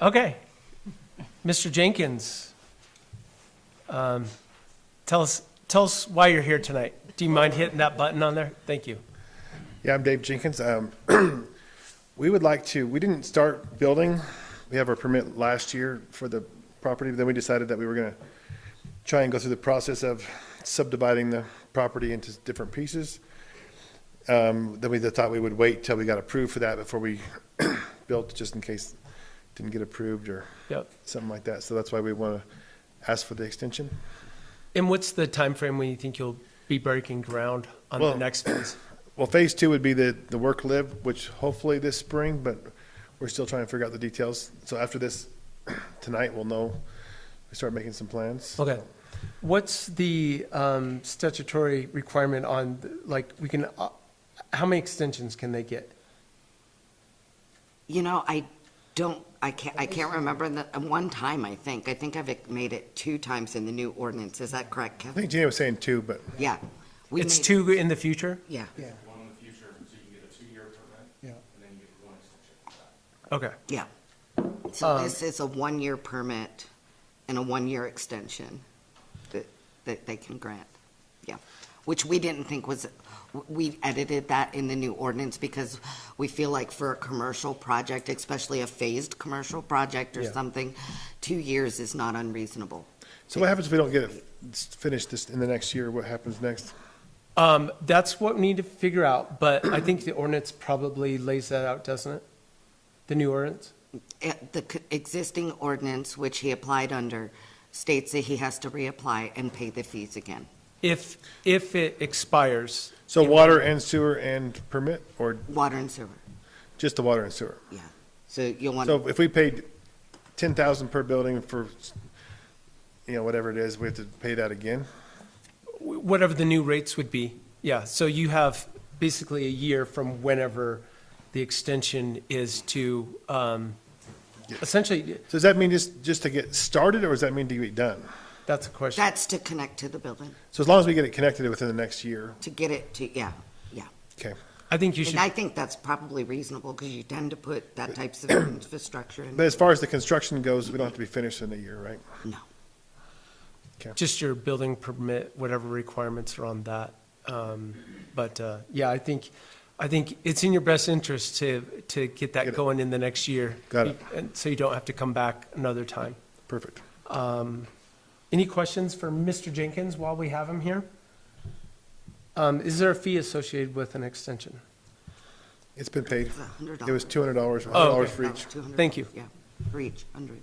Okay. Mr. Jenkins, um, tell us, tell us why you're here tonight. Do you mind hitting that button on there? Thank you. Yeah, I'm Dave Jenkins. Um, We would like to, we didn't start building. We have our permit last year for the property, but then we decided that we were going to try and go through the process of subdividing the property into different pieces. Um, Then we thought we would wait till we got approved for that before we built, just in case it didn't get approved or Yep. something like that. So that's why we want to ask for the extension. And what's the time frame when you think you'll be breaking ground on the Well- next phase? Well, phase two would be the, the work live, which hopefully this spring, but we're still trying to figure out the details. So after this, tonight, we'll know, we start making some plans. Okay. What's the um, statutory requirement on, like, we can, uh, how many extensions can they get? You know, I don't, I can't, I can't remember the, one time, I think. I think I've made it two times in the new ordinance. Is that correct, I Kevin? think Gina was saying two, but Yeah. we It's made- two in the future? Yeah. Yeah, one in the future, so you can get a two-year permit, yeah. and then you get one extension. Okay. um, So this is a one-year permit and a one-year extension that, that they can grant. Yeah. Which we didn't think was, we edited that in the new ordinance because we feel like for a commercial project, especially a phased commercial project or Yeah. something, two years is not unreasonable. so what happens if we don't get it finished this, in the next year? What happens next? Um, That's what we need to figure out, but I think the ordinance probably lays that out, doesn't it? The new ordinance? at eh, the c- existing ordinance, which he applied under, states that he has to reapply and pay the fees again. If, if it expires, So water and sewer and permit, or Water and sewer, just the water and sewer? yeah. So you'll want, So if we paid ten thousand per building for, you know, whatever it is, we have to pay that again? whatever the new rates would be, yeah, so you have basically a year from whenever the extension is to, um, essentially, So does that mean just, just to get started, or does that mean to be done? that's a question. that's to connect to the building, So as long as we get it connected within the next year, to get it to, yeah, yeah. okay. I think you should, And I think that's probably reasonable, because you tend to put that types of infrastructure in. But as far as the construction goes, we don't have to be finished in a year, right? No, just your building permit, whatever requirements are on that. Um, But, uh, yeah, I think, I think it's in your best interest to, to get Get that it. going in the next year. Got it. And so you don't have to come back another time. Perfect. Any questions for Mr. Jenkins while we have him here? Um, Is there a fee associated with an extension? It's been paid. it's a hundred It was dollars. two hundred dollars, hundred Oh, dollars okay. for each. $200. Thank you. Yeah, for each, hundred.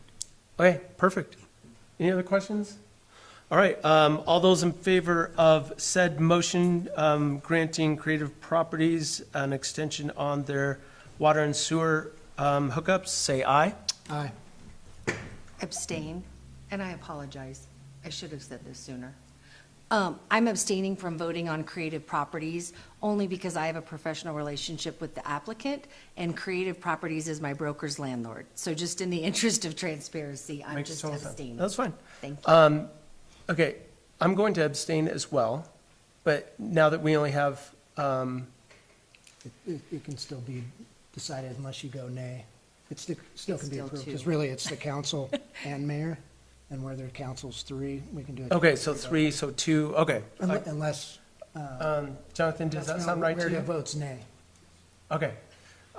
Okay, perfect. Any other questions? All right, um, all those in favor of said motion um, granting Creative Properties an extension on their water and sewer um, hookups, say aye. Aye. abstain, and I apologize. I should have said this sooner. Um, I'm abstaining from voting on Creative Properties only because I have a professional relationship with the applicant, and Creative Properties is my broker's landlord. So just in the interest of transparency, I'm Makes just total sense. abstaining. That's fine. Thank you. Um, Okay, I'm going to abstain as well, but now that we only have, um, It- It, it can still be decided unless you go nay. It still, still It's can be still approved, two. because really, it's the council and mayor, and where their council's three, we can do it. okay, so three, so two, okay. Unle- Unless. Um, Jonathan, does that sound right to Where you? it votes nay. Okay,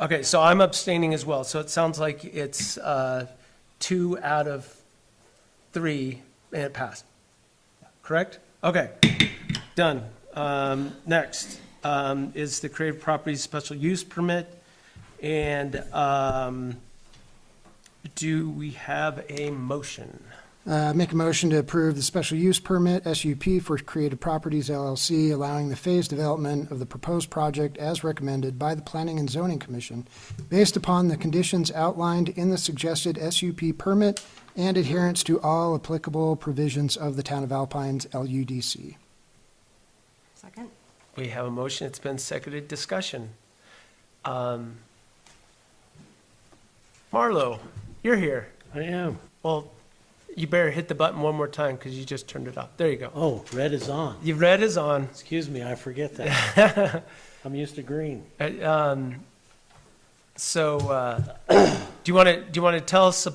okay, so I'm abstaining as well, so it sounds like it's uh, two out of three, and it passed, correct? Okay, done. Um, Next um, is the Creative Properties Special Use Permit, and um, do we have a motion? Uh, Make a motion to approve the special use permit, SUP, for Creative Properties LLC, allowing the phased development of the proposed project as recommended by the Planning and Zoning Commission, based upon the conditions outlined in the suggested SUP permit and adherence to all applicable provisions of the Town of Alpine's LUDC. Second? We have a motion, it's been seconded, discussion. Um, Marlo, you're here. I am. Well, you better hit the button one more time because you just turned it off. There you go. Oh, red is on. Your red is on. Excuse me, I forget that. I'm used to green. Uh, um, So, uh, do you want to, do you want to tell us about